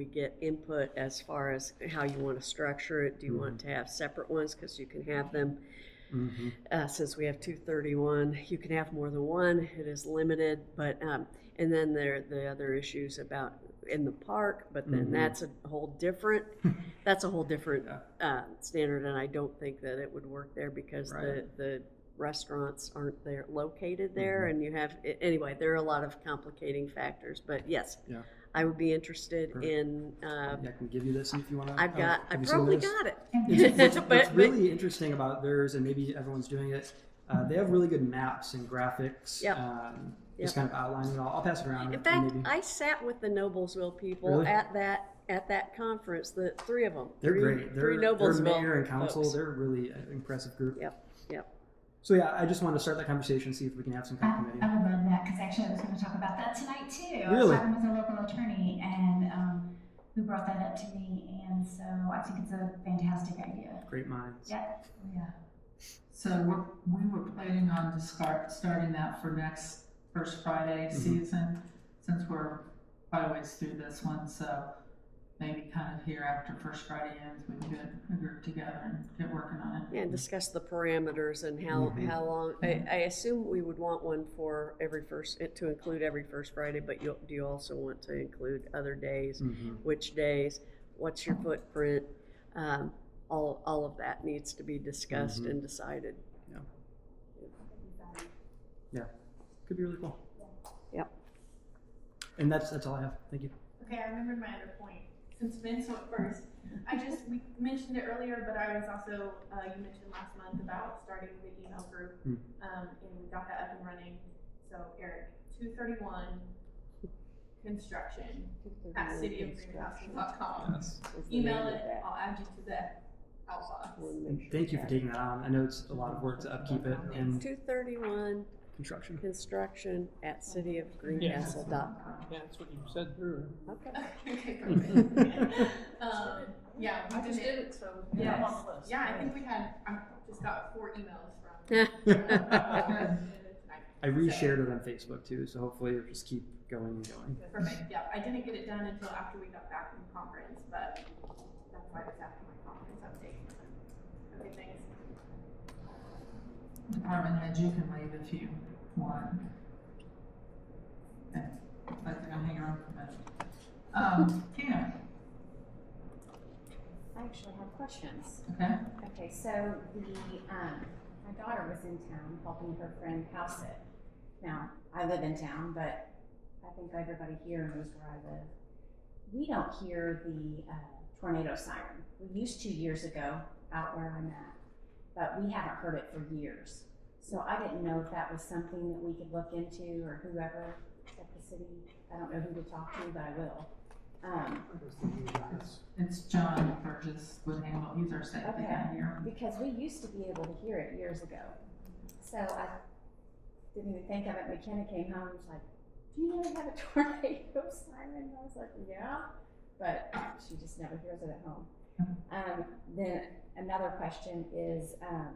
get input as far as how you want to structure it. Do you Mm-hmm. want to have separate ones? Because you can have them, uh, since we have two thirty-one, you can have more than one. It is limited, but, um, and then there, are the other issues about in the park, but then Mhm. that's a whole different, that's a whole different, uh, standard, and I don't think that it would work there because the, Right. Mm-hmm. the restaurants aren't there, located there, and you have, a- anyway, there are a lot of complicating factors, but yes. Yeah. I would be interested Perfect. in, uh, I can give you this if Oh, you want to. I've got, I probably got it. It's, what's, But- what's but- really interesting about theirs, and maybe everyone's doing it, uh, they have really good maps and graphics. Yep. Um, Yep. Just kind of outlining it all. I'll pass it around. In and fact, maybe- I sat with the Noblesville people Really? at that, at that conference, the three of them. they're three- great. They're, Three their mayor Noblesville and council. folks. They're really an impressive group. Yep, yep. So yeah, I just want to start that conversation, see if we can have some kind of I, I committee. would love that because actually I was going to talk about that tonight too. I was Really? talking with a local attorney and um, who brought that up to me, and so I think it's a fantastic idea. Great minds. Yeah, yeah. So we're, we were planning on to start, starting that for next first Friday Mhm. season, since we're quite a ways through this one, so maybe kind of here after first Friday ends, we can get a group together and get working on it. And discuss the parameters and how, Mhm. how long, I, I assume we would want one for every first, to include every first Friday, but you, do you also want to include other days? hmm Which days? What's your footprint? Um, all, all of that needs to be discussed Mhm. and decided. Could be really cool. Yep. And that's that's all I have. Thank you. Okay, I remembered my other point. Since Vince went first, I just we mentioned it earlier, but I was also uh, you mentioned last month about starting the email group, Hmm. um, and we got that up and running. So Eric, two thirty one construction at cityofgreenhouses.com. Yes. Email it. I'll add you to the outbox. And thank you for taking that on. I know it's a lot of work to upkeep it and Two thirty-one construction. construction at cityofgreencastle.com. Yeah, that's what you said through. Okay. okay, perfect. um, yeah, we just did it. So yes. yeah, I think we had I just got four emails from. I Okay. reshared it on Facebook too, so hopefully it'll just keep going and going. Perfect, yeah, I didn't get it done until after we got back from conference, but that's why it's after my conference update. Okay, thanks. Department head, you can leave if you want. Okay, I think I'll hang around for a minute. Um, Tina, I actually have questions. okay? Okay, so the, um, my daughter was in town helping her friend house it. Now, I live in town, but I think everybody here knows where I live. We don't hear the uh, tornado siren. We used to years ago out where I'm at, but we haven't heard it for years. So I didn't know if that was something that we could look into or whoever at the city, I don't know who to talk to, but I will. Um, It's John Burgess would handle, he's our safety guy here. Because we used to be able to hear it years ago. So I didn't even think of it. McKenna came home and was like, Do you really have a tornado siren? I was like, Yeah. But she just never hears it at home. Um, then another question is um,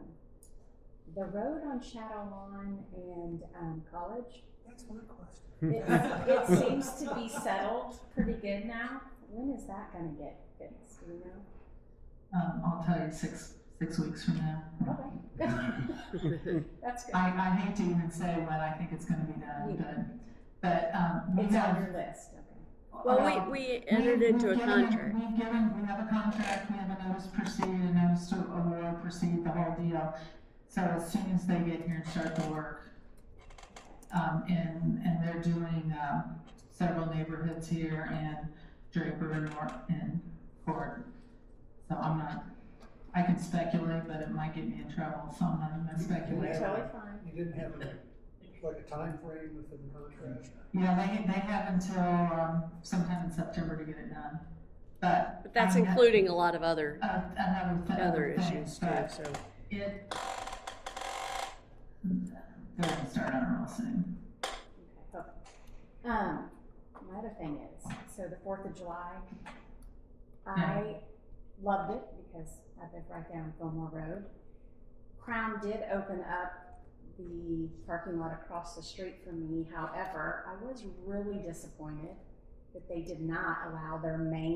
the road on Shadow Lawn and um, College. That's my question. It, it seems to be settled pretty good now. When is that going to get fixed? Do you know? Um, I'll tell you six, six weeks from now. Okay. That's good. I, I hate to even say when I think it's gonna be done, but, but, um, we It's on have. uh, your list, okay. Well, we, we entered we've- into a we've given- contract. We've given, we have a contract, we have a notice to proceed, a notice to award, proceed, the whole deal. So as soon as they get here and start the work, um, and, and they're doing, um, several neighborhoods here and Draper and North and Ford. So I'm not, I can speculate, but it might get me in trouble, so I'm not even gonna speculate. You're totally fine. You didn't have a, like a time frame within the contract? Yeah, they, they have until, um, sometime in September to get it done, but. But that's I know- including a lot of other, Uh, another, th- other other issues things, too, but so. it. They're gonna start on it real soon. Okay, cool. Um, my other thing is, so the Fourth of July, I loved it because I live right down Fillmore Road. Crown did open up the parking lot across the street from me, however, I was really disappointed that they did not allow their main